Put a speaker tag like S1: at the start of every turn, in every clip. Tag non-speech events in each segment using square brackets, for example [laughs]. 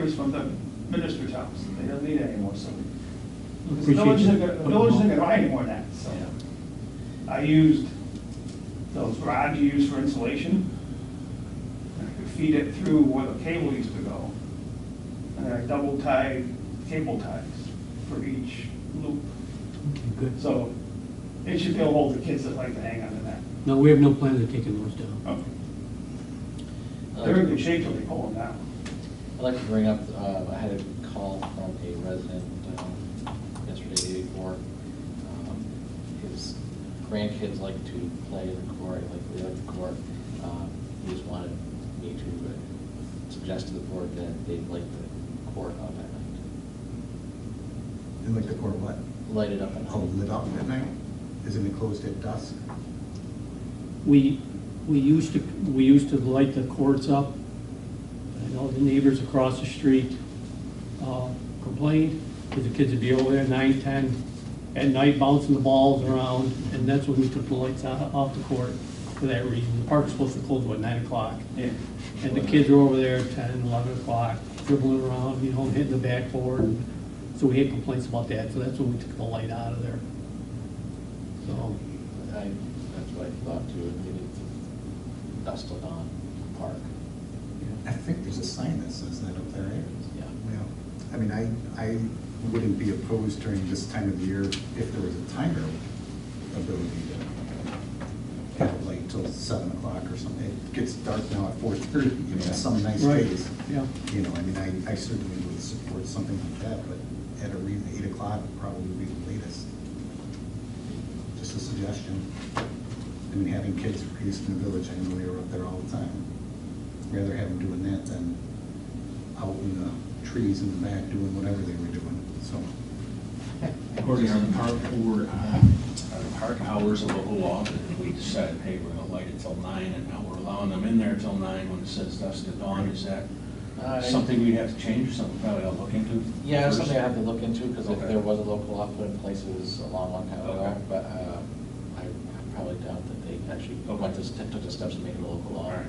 S1: was from the minister's house, they don't need it anymore, so. Because The
S2: Appreciate
S1: village isn't
S2: you.
S1: gonna, the village isn't gonna buy any more of that, so. I used those rods you use for insulation. I could feed it through where the cable used to go. And I double tied cable ties for each loop.
S2: Okay, Good.
S1: So it should be able to hold the kids that like to hang on to that.
S2: No, we have no plans of taking those down.
S1: Okay. They're in good shape till they pull them down.
S3: Uh, I'd like to bring up, uh, I had a call from a resident um, yesterday, the day before. Um, His grandkids like to play in the court, like they like the court. Um, He just wanted me to uh, suggest to the board that they'd light the court up at night.
S4: They like the court what?
S3: Light it up at
S4: Oh,
S3: night.
S4: lit up at night? Isn't it closed at dusk?
S2: We, we used to, we used to light the courts up. I know the neighbors across the street uh, complained, because the kids would be over there nine, ten, at night bouncing the balls around, and that's when we took the lights out, off the court for that reason. The park's supposed to close, what, nine o'clock?
S1: Yeah.
S2: And the kids were over there at 10, 11 o'clock, dribbling around, you know, hitting the backboard. So we had complaints about that, so that's when we took the light out of there. So,
S3: I, that's what I thought too, and maybe it's dusk till dawn, park.
S4: I think there's a sign that says that up there. eh?
S3: Yeah.
S4: Well, I mean, I, I wouldn't be opposed during this time of year if there was a timer ability to have light till seven o'clock or something. It gets dark now at four thirty, you know, some nice
S2: Right,
S4: days.
S2: yeah.
S4: You know, I mean, I, I certainly would support something like that, but at a reason, eight o'clock would probably would be the latest. Just a suggestion. I mean, having kids raised in the village, I know they were up there all the time. Rather have them doing that than out in the trees in the back doing whatever they were doing, so.
S5: According to our park board, uh, our park hours, a local law, that we decided, hey, we're gonna light it till nine, and now we're allowing them in there till nine when it says dusk to dawn, is that
S3: Uh, I-
S5: something we have to change, or something probably I'll look into?
S3: Yeah, it's
S5: first?
S3: something I have to look into, because
S5: Okay.
S3: there was a local law put in places a long, long time ago,
S5: Okay.
S3: but uh, I I probably doubt that they actually went to, st- took the steps to make it a local
S5: All
S3: law.
S5: right.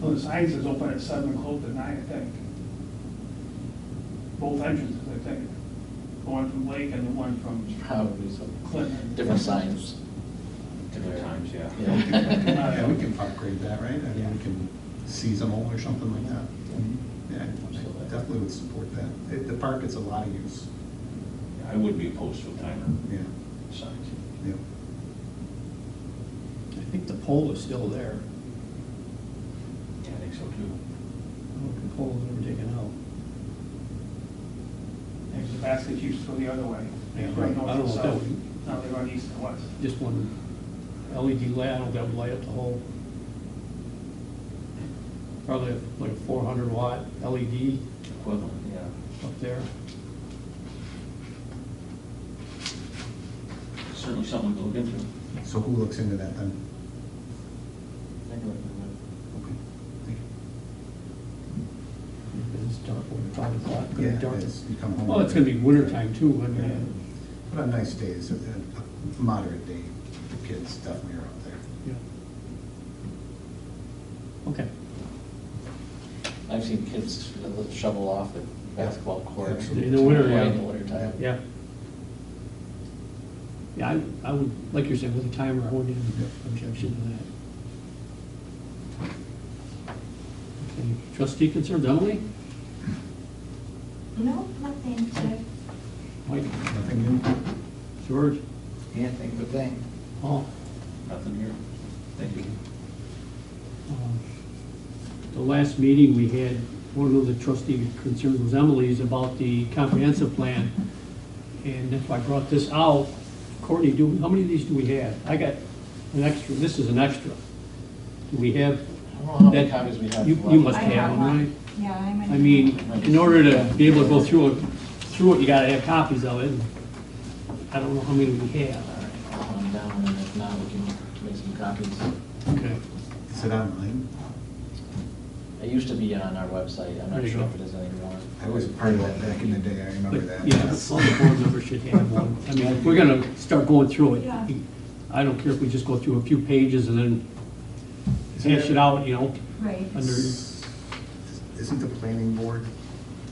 S1: Well, the signs is open at seven, closed at nine, I think. Both entrances, I think. The one from Lake and the one from
S3: Probably some
S1: Clinton.
S3: different signs.
S5: Different times, yeah.
S3: Yeah.
S4: Yeah, we
S2: [laughs]
S4: can park grade that, right? I mean, we can seasonal or something like that. Yeah, I definitely would support that. It- The park gets a lot of use,
S5: I would be opposed to a timer
S4: yeah,
S5: signs.
S4: yeah.
S2: I think the pole is still there.
S5: Yeah, I think so too.
S2: I don't know if the pole was ever taken out.
S1: There's a basket used to go the other way. They
S2: Yeah,
S1: run north
S2: I don't
S1: and
S2: know if that
S1: south.
S2: would-
S1: Now they run east and west.
S2: Just one LED light, I don't know if that would light up the whole. Probably like a 400 watt LED
S5: Equivalent, yeah.
S2: up there.
S5: Certainly something to look into.
S4: So who looks into that then? Okay, thank
S2: It's dark, when it's five o'clock, it's
S4: you.
S2: gonna be dark.
S4: Yeah, it's, you come home.
S2: Well, it's gonna be winter time too, I
S4: Yeah.
S2: mean,
S4: But on nice days, a a moderate day, the kids definitely are up there.
S2: yeah. Okay.
S3: I've seen kids shovel off the basketball court.
S4: Absolutely.
S2: In the winter,
S3: Play
S2: yeah.
S3: In the wintertime.
S2: Yeah. Yeah, I, I would, like you're saying, with a timer, I wouldn't have an objection to that. Okay, Trustee concerns, Emily?
S6: No, nothing to.
S2: Mike?
S4: Nothing new?
S2: George?
S7: Anything but thing.
S2: Paul?
S5: Nothing here. Thank you.
S2: Um, The last meeting we had, one of the trustee concerns was Emily's about the comprehensive plan. And if I brought this out, Courtney, do, how many of these do we have? I got an extra, this is an extra. Do we have
S3: I don't know how many
S2: That-
S3: copies we have.
S2: you- you must
S6: I
S3: left.
S2: have one,
S6: one.
S2: right?
S6: Yeah, I'm. in-
S2: I mean, in order to be able to go through it, through it, you gotta have copies of it. I don't know how many we have.
S3: All right, I'll hunt them down, and if not, we can make some copies.
S2: Okay.
S4: Is it online?
S3: It used to be on our website, I'm
S2: There
S3: not
S2: you
S3: sure
S2: go.
S3: if it is anymore.
S4: I was part of that back in the day, I remember
S2: But,
S4: that.
S2: yeah, all the board members should have one. I mean, if we're gonna start going through it.
S6: Yeah.
S2: I don't care if we just go through a few pages and then hash it out, you know,
S6: Right.
S2: under,
S4: Isn't the planning board